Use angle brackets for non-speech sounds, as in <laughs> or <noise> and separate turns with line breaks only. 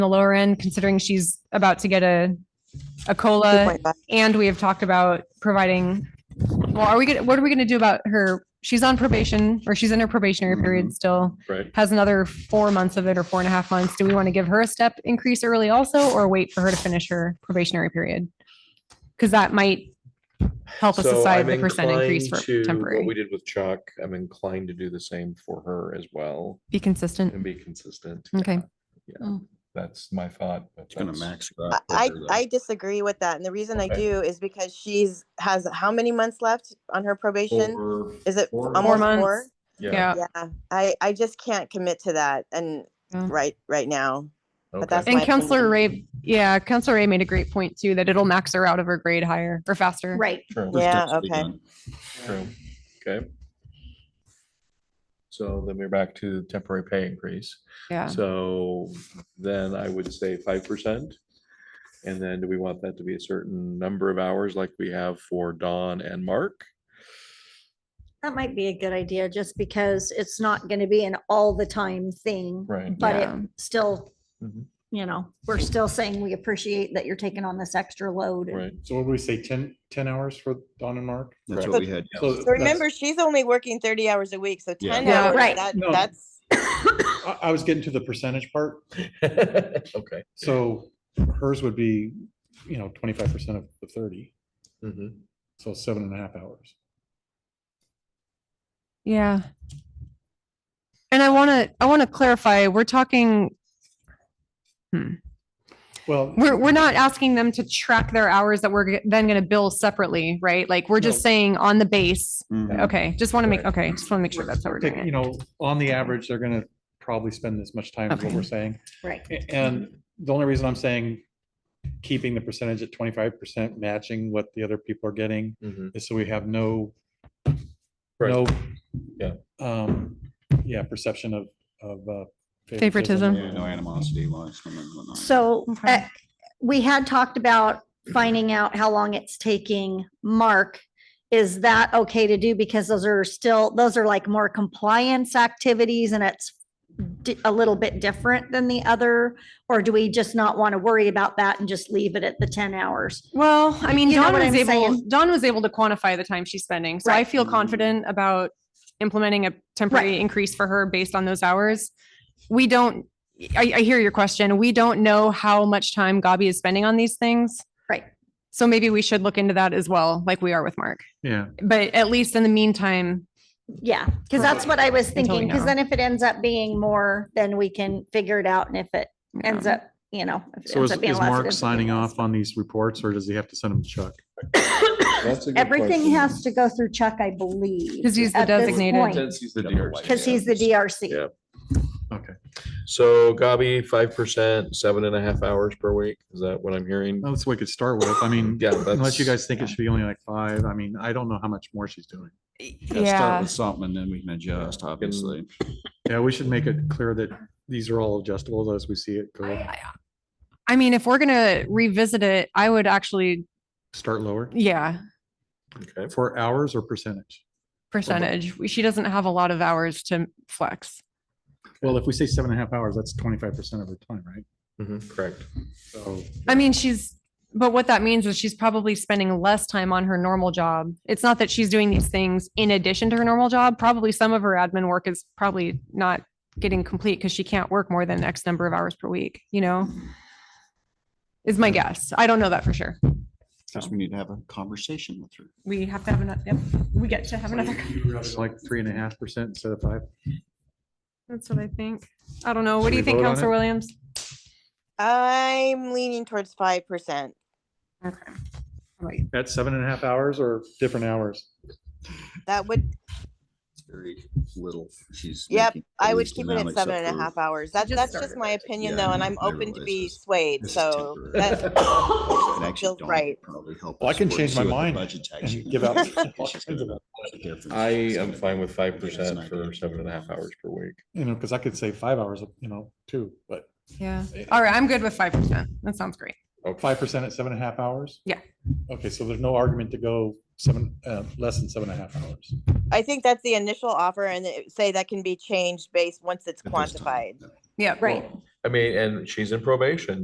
the lower end, considering she's about to get a, a COLA. And we have talked about providing, well, are we gonna, what are we gonna do about her? She's on probation or she's in her probationary period still,
Right.
has another four months of it or four and a half months. Do we want to give her a step increase early also, or wait for her to finish her probationary period? Because that might help us
So
decide
I'm
the percent increase for
inclined to what
temporary.
We did with Chuck. I'm inclined to do the same for her as well
Be consistent.
and be consistent.
Mm. Okay.
Yeah, Yeah,
Mm.
that's my thought. but
It's gonna
that's-
max.
I- I, I disagree with that. And the reason I
Okay.
do is because she's has how many months left on her probation?
Over-
Is it
four
almost
months.
four?
Yeah.
Yeah, I, I just can't commit to that and
Yeah.
right, right now.
okay.
that's
And
my
Counselor
opinion.
Ray, yeah, Counselor Ray made a great point too, that it'll max her out of her grade higher or faster.
Right.
True,
Yeah. okay.
true. Okay. So then we're back to temporary pay increase.
Yeah.
So then I would say five percent. And then do we want that to be a certain number of hours like we have for Dawn and Mark?
That might be a good idea, just because it's not gonna be an all the time thing,
Right.
but it
Yeah.
still,
Mhm.
you know, we're still saying we appreciate that you're taking on this extra load. and-
Right.
So what would we say, 10 10 hours for Dawn and Mark?
That's
Correct.
what we had.
So
So
that's-
remember, she's only working thirty hours a week, so
Yeah.
ten
Yeah,
hours,
right.
that,
No.
that's.
I, I was getting to the percentage part.
<laughs> Okay.
So hers would be, you know, twenty-five percent of the thirty,
Mhm.
so seven and a half hours.
Yeah. And I want to, I want to clarify, we're talking,
Well.
we're, we're not asking them to track their hours that we're g- then going to bill separately, right? Like, we're just
No.
saying on the base.
Mhm.
Okay, just want to make,
Right.
okay, just want to make sure that's how we're
take-
doing
You
it.
know, on the average, they're gonna probably spend this much time is what
Okay.
we're saying.
Right.
A- And the only reason I'm saying keeping the percentage at twenty-five percent matching what the other people are getting
Mhm.
is so we have no,
Right.
no.
Yeah.
Um, yeah, perception of, of. uh, um,
Favoritism.
Yeah, no animosity. well, I remember whatnot.
So
Okay.
uh, we had talked about finding out how long it's taking Mark. Is that okay to do? Because those are still, those are like more compliance activities and it's di- a little bit different than the other? Or do we just not want to worry about that and just leave it at the 10 hours?
Well, I mean,
You know
Dawn
what
was
I'm
able,
saying?
Dawn was able to quantify the time she's spending. So I
Right.
feel confident about implementing a temporary increase for her based on those hours. We don't, I, I hear your question. We don't know how much time Gabi is spending on these things.
Right.
So maybe we should look into that as well, like we are with Mark.
Yeah.
But at least in the meantime,
Yeah, because that's what I was
Until we
thinking. Because
know.
then if it ends up being more, then we can figure it out. And if it ends
um,
up, you know. if it
So
ends
is,
up being
is
less, it
Mark
ends up
signing
being less.
off on these reports or does he have to send them to Chuck?
That's a good
Everything
question.
has to go through Chuck, I believe.
Because he's the
at this
designated-
point,
Since he's the
Yeah,
DRC.
Because he's the
Yeah.
DRC.
Okay.
So Gabi, five percent, seven and a half hours per week. Is that what I'm hearing?
That's what we could start with. I mean,
Yeah,
Um, unless you
that's-
guys think it should be only like five, I mean, I don't know how much more she's doing.
Gotta Start
yeah,
with something and then we can adjust, obviously.
Yeah, we should make it clear that these are all adjustable as we see it go,
I mean, if we're going to revisit it, I would actually,
start lower
yeah,
Okay.
for hours or percentage.
percentage. She doesn't have a lot of hours to flex.
Well, if we say seven and a half hours, that's twenty-five percent of her time, right?
Mhm, Correct.
So
I mean, she's, but what that means is she's probably spending less time on her normal job. It's not that she's doing these things in addition to her normal job. Probably some of her admin work is probably not getting complete because she can't work more than X number of hours per week, you know? Is my guess. I don't know that for sure.
Because we need to have a conversation with her.
We have to have another, yep, we get to have another.
like three and a half percent instead of five.
<laughs> That's what I think. I don't know. What do
Should
you
we
think,
vote on
Counselor
it?
Williams?
I'm leaning towards five percent.
Right.
At seven and a half hours or different hours?
That would,
It's Very little. She's.
Yep,
making
I would
moves
keep
now,
it at
except
seven and a
for-
half hours. That's,
Just
that's
started
just my opinion
Yeah,
though, and I'm
I
open to
realize
be
this-
swayed,
this is
so
temporary.
that,
And actually,
feels
Dawn
right.
probably help
Well, I
us
can
work-
change
see
my
what the
mind
budget tax
and
is <laughs>
give
<laughs>
gonna
out <laughs>
be. She's gonna
all
have a difference.
I
It's
am
gonna
fine
be-
with five
It's an
percent for
idea.
seven and a half hours per week.
You know, because I could say five hours, you know, too, but
Yeah. All right. I'm good with 5%. That sounds great.
five percent at seven and a half hours?
Yeah.
Okay, so there's no argument to go seven, uh, less than seven and a half hours.
I think that's the initial offer and it- say that can be changed based, once it's
At this time,
quantified.
no.
Yeah.
Right.
I mean, and she's in probation,